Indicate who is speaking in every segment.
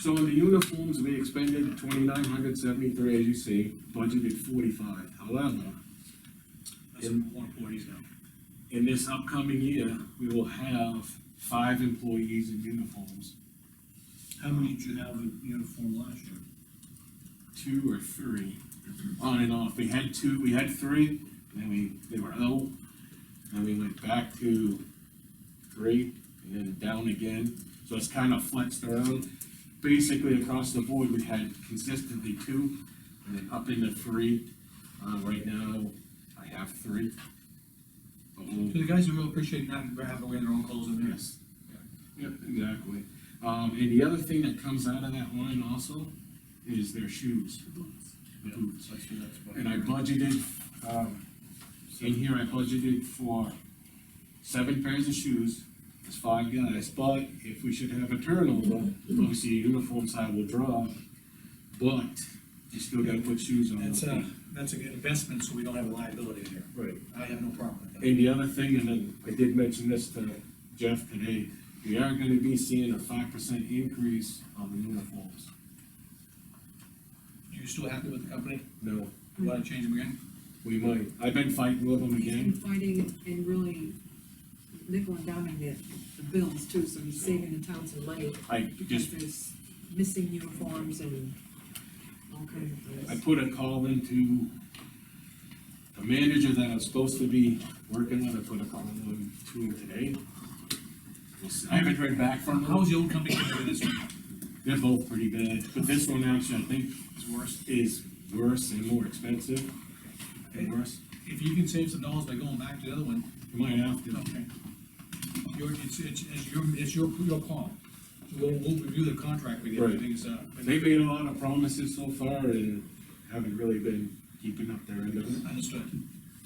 Speaker 1: So in the uniforms, we expended twenty-nine hundred seventy-three, as you see, budgeted forty-five, however,
Speaker 2: That's more employees now.
Speaker 1: in this upcoming year, we will have five employees in uniforms,
Speaker 2: How many did you have in uniform last year?
Speaker 1: two or three, on and off, we had two, we had three, and then we, they were out, and we went back to three, and then down again, so it's kind of flexed around. Basically, across the board, we had consistently two, and then up into three, uh, right now, I have three. But we'll-
Speaker 2: So the guys will appreciate not having to wear their own clothes in there.
Speaker 1: Yes. Yep, exactly. Um, and the other thing that comes out of that line also is their shoes. The boots.
Speaker 2: I see that's about-
Speaker 1: And I budgeted, um, in here, I budgeted for seven pairs of shoes, it's five guys, but if we should have a turnover, obviously your uniform side will drop, but you still gotta put shoes on.
Speaker 2: That's a, that's a good investment, so we don't have a liability there.
Speaker 1: Right.
Speaker 2: I have no problem with that.
Speaker 1: And the other thing, and then I did mention this to Jeff today, we are gonna be seeing a five percent increase on the uniforms.
Speaker 2: You still happy with the company?
Speaker 1: No,
Speaker 2: You wanna change them again?
Speaker 1: we might, I've been fighting with them
Speaker 3: And
Speaker 1: again,
Speaker 3: fighting and really nickel and diming the, the bills too, so you're saving the town some money.
Speaker 1: I
Speaker 3: Because
Speaker 1: just,
Speaker 3: there's missing uniforms and all kinds of things.
Speaker 1: I put a call into the manager that I'm supposed to be working with, I put a call in to him today. We'll see. I haven't heard back from
Speaker 2: How
Speaker 1: them,
Speaker 2: was the old company compared to this one?
Speaker 1: they're both pretty bad, but this one actually, I think,
Speaker 2: It's worse.
Speaker 1: is worse and more expensive, and worse,
Speaker 2: If you can save some dollars by going back to the other one,
Speaker 1: you might have to.
Speaker 2: Okay. Your, it's, it's, it's your, it's your, your call. We'll, we'll review the contract with you,
Speaker 1: Right.
Speaker 2: everything's, uh.
Speaker 1: They made a lot of promises so far and haven't really been keeping up their end of it.
Speaker 2: Understood.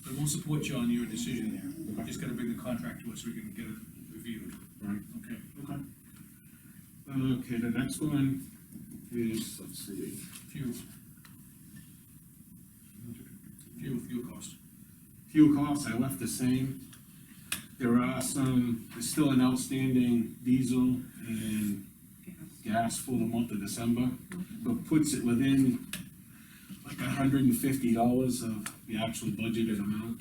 Speaker 2: But we'll support you on your decision there. We're Just gotta bring the contract to us, so we can get it reviewed,
Speaker 1: Right.
Speaker 2: okay?
Speaker 1: Okay. Okay, the next one is, let's see,
Speaker 2: Fuel. Fuel, fuel cost.
Speaker 1: fuel costs, I left the same. There are some, there's still an outstanding diesel and gas for the month of December, but puts it within like hundred and fifty dollars of the actual budgeted amount.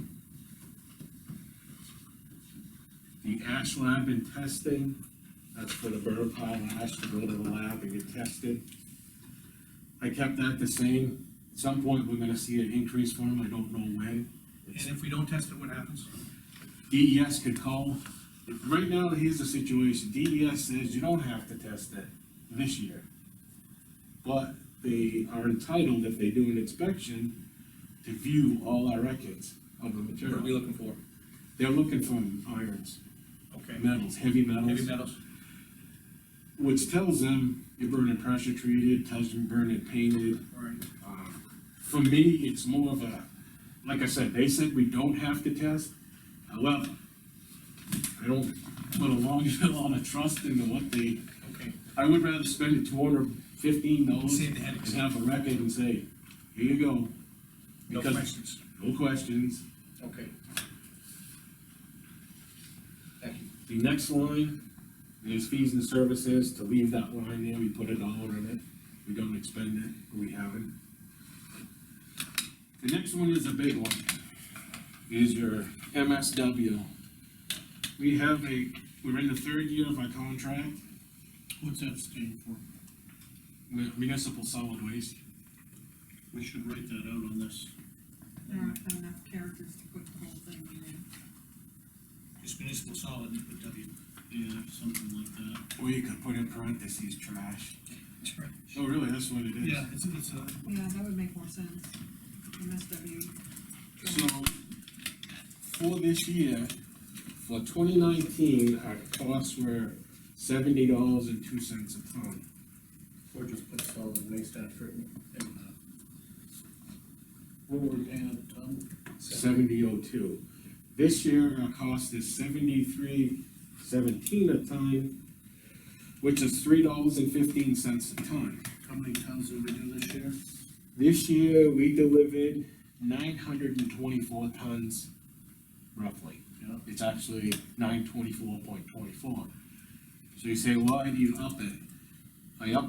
Speaker 1: The ash lab and testing, that's for the burn pile ash to go to the lab and get tested. I kept that the same, at some point, we're gonna see an increase for them, I don't know when.
Speaker 2: And if we don't test it, what happens?
Speaker 1: DES E could call, right now, here's the situation, DES says you don't have to test it this year. But they are entitled, if they do an inspection, to view all our records of the
Speaker 2: What are we
Speaker 1: material.
Speaker 2: looking for?
Speaker 1: They're looking for irons,
Speaker 2: Okay.
Speaker 1: metals, heavy
Speaker 2: Heavy
Speaker 1: metals,
Speaker 2: metals?
Speaker 1: which tells them you're burning pressure treated, tells you you're burning painted.
Speaker 2: All right.
Speaker 1: Um, For me, it's more of a, like I said, they said we don't have to test, however, I don't put a long, a lot of trust into what they,
Speaker 2: Okay.
Speaker 1: I would rather spend two hundred fifteen dollars
Speaker 2: Save
Speaker 1: and
Speaker 2: the headaches.
Speaker 1: have a record and say, here you go.
Speaker 2: No
Speaker 1: Because-
Speaker 2: questions.
Speaker 1: No questions.
Speaker 2: Okay. Thank you.
Speaker 1: The next line is fees and services, to leave that line there, we put a dollar in it, we don't expend it, we haven't. The next one is a big one, is your MSW. We have a, we're in the third year of our contract
Speaker 2: What's that stand for?
Speaker 1: with municipal solid waste.
Speaker 2: We should write that out on this.
Speaker 3: There aren't enough characters to put the whole thing in.
Speaker 2: Just municipal solid, you put W. Yeah, something like that.
Speaker 1: Or you could put in parentheses, trash. Oh, really, that's what it is?
Speaker 2: Yeah, it's, it's a,
Speaker 3: Yeah, that would make more sense, MSW.
Speaker 1: So, for this year, for twenty nineteen, our costs were seventy dollars and two cents a ton.
Speaker 4: Or just put solid waste after it. and, uh, What were we paying a ton?
Speaker 1: Seventy oh two. This year, our cost is seventy-three seventeen a ton, which is three dollars and fifteen cents a ton.
Speaker 4: How many tons did we do this year?
Speaker 1: This year, we delivered nine hundred and twenty-four tons, roughly.
Speaker 4: Yeah.
Speaker 1: It's actually nine twenty-four point twenty-four. So you say, why do you up it? I up